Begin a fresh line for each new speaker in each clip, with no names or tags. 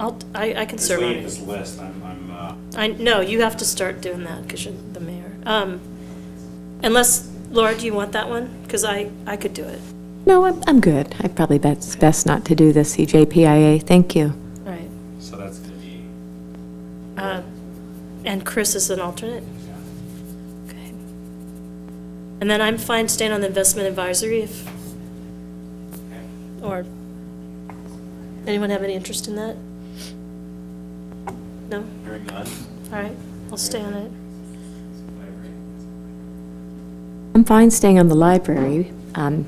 I'll, I, I can
Just
serve on
looking at
it.
this list, I'm, I'm, uh,
I, no, you have to start doing that because you're the mayor. Um, unless, Laura, do you want that one? Because I, I could do it.
No, I'm, I'm good. I probably that's best not to do the CJPIA. Thank you.
All right.
so that's gonna be,
Uh, And Chris is an alternate?
yeah.
Okay. And then I'm fine staying on the investment advisory if, or, anyone have any interest in that? No?
Hearing none?
All right, I'll stay on it.
I'm fine staying on the library. Um,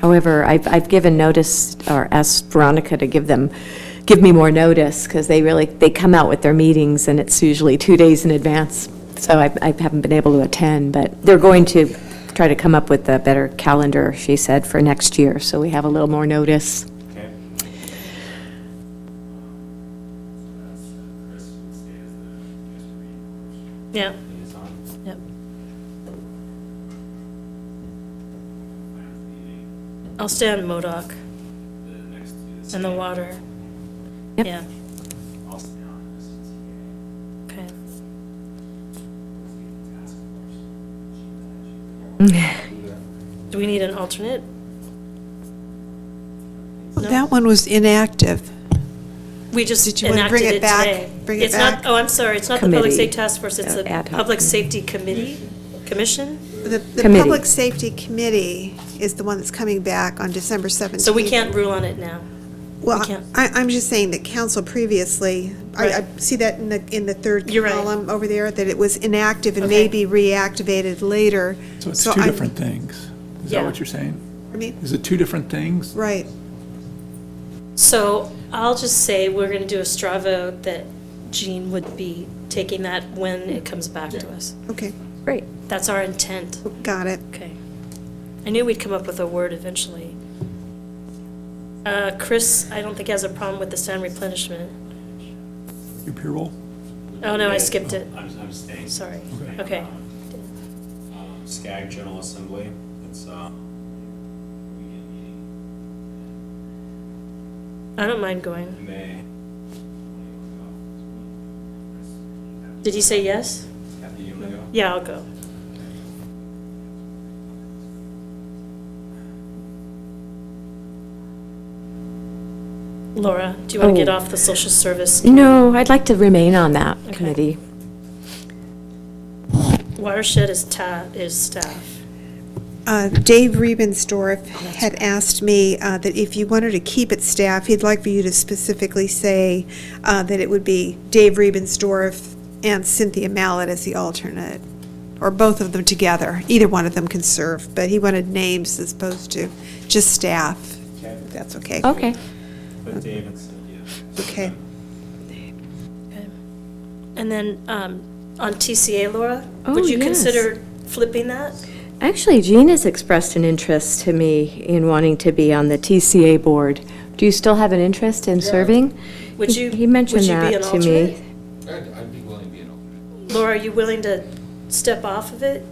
However, I've, I've given notice, or asked Veronica to give them, give me more notice, because they really, they come out with their meetings, and it's usually two days in advance. So I, I haven't been able to attend, but they're going to try to come up with a better calendar, she said, for next year, so we have a little more notice.
Okay.
Yeah,
Liaison,
yep.
plans meeting,
I'll stay on MODOC
the next is-
and the water.
Yep.
Yeah,
I'll stay on this TA,
okay.
task force.
Do we need an alternate? No?
That one was inactive.
We just
Did you wanna
enacted
bring it
it
back?
today.
Bring it
It's not,
back?
oh, I'm sorry, it's not the Public
Committee.
Safety Task Force, it's the
Uh, ad hoc
Public
committee.
Safety Committee, Commission?
The, the
Committee.
Public Safety Committee is the one that's coming back on December 17th.
So we can't rule on it now.
Well,
can't.
I, I'm just saying that council previously, I, I
Right.
see that in the, in the third
You're right.
column over there, that it was inactive and
Okay.
may be reactivated later.
So it's two
I'm-
different things. Is
Yeah.
that what you're saying?
I mean,
Is it two different things?
right.
So I'll just say we're going to do a straw vote that Jean would be taking that when it comes back to us.
Okay,
Great.
That's our intent.
got it.
Okay. I knew we'd come up with a word eventually. Uh, Chris, I don't think has a problem with the sound replenishment.
Your peer role?
Oh, no, I skipped it.
I'm, I'm staying.
Sorry. Okay.
Um, SCAG General Assembly, it's, uh, weekend meeting
I don't mind going.
in May.
Did he say yes?
Kathy, you wanna go?
Yeah, I'll go. Laura, do you want to get
Oh. Mm.
off the social service?
No, I'd like to remain on that
Okay.
committee.
Watershed is ta, is staff.
Uh, Dave Rebenstorf had asked me uh, that if you wanted to keep it staff, he'd like for you to specifically say uh, that it would be Dave Rebenstorf and Cynthia Mallett as the alternate, or both of them together. Either one of them can serve, but he wanted names as opposed to just staff.
Okay.
if That's okay.
Oh.
Okay.
But Dave and Cynthia.
Okay.
And then um, on TCA, Laura,
Oh,
would you
yes.
consider flipping that?
Actually, Jean has expressed an interest to me in wanting to be on the TCA board. Do you still have an interest in serving?
Would
He-
you-
He mentioned
would you be
that
an
to
alternate?
me.
I'd, I'd be willing to be an alternate.
Laura, are you willing to step off of it?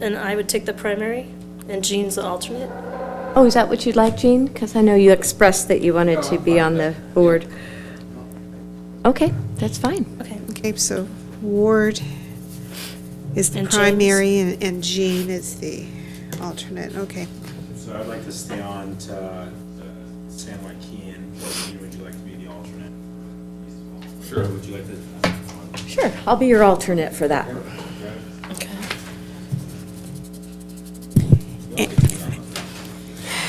And I would take the primary and Jean's the alternate?
Oh, is that what you'd like, Jean? Because I know you expressed that you wanted to be on the board. Okay, that's fine.
Okay.
Okay, so Ward is the
And James.
primary and and Jean is the alternate. Okay.
So I'd like to stay on to uh, San Joaquin, Would you- would you like to be the alternate? Sure. Would you like to? uh,
Sure, I'll be your alternate for that.
Okay.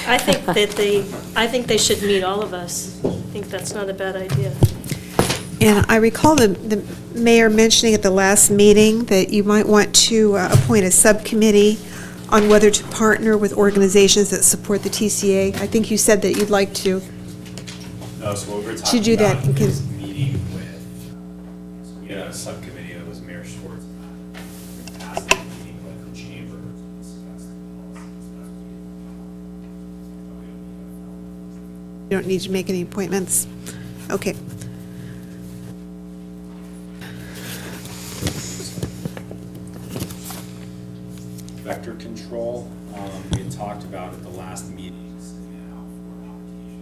I think that they, I think they should meet all of us. I think that's not a bad idea.
And I recall the, the mayor mentioning at the last meeting that you might want to uh, appoint a subcommittee on whether to partner with organizations that support the TCA. I think you said that you'd like to.
No, so what we're
Should
talking
do that
about
in case-
is meeting with, uh, we had a subcommittee that was Mayor Schwartz. and I, and asked them to meet with the chamber to discuss the policy and stuff. We don't need a-
You don't need to make any appointments. Okay.
vector control. Um, We had talked about at the last meeting,